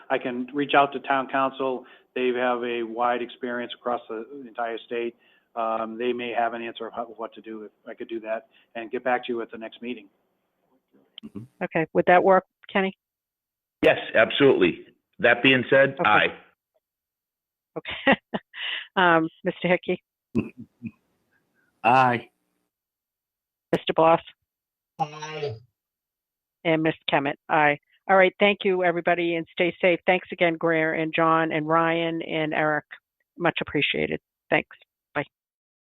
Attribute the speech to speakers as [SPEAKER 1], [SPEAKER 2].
[SPEAKER 1] I can reach out to town council. They have a wide experience across the entire state. Um, they may have an answer of how, what to do, if I could do that, and get back to you at the next meeting.
[SPEAKER 2] Okay, would that work, Kenny?
[SPEAKER 3] Yes, absolutely. That being said,
[SPEAKER 2] Okay.
[SPEAKER 3] aye.
[SPEAKER 2] Okay. Um, Mr. Hickey,
[SPEAKER 4] Aye.
[SPEAKER 2] Mr. Bloss,
[SPEAKER 5] Aye.
[SPEAKER 2] and Ms. Kemet, aye. All right, thank you, everybody, and stay safe. Thanks again, Greer and John and Ryan and Eric. Much appreciated. Thanks.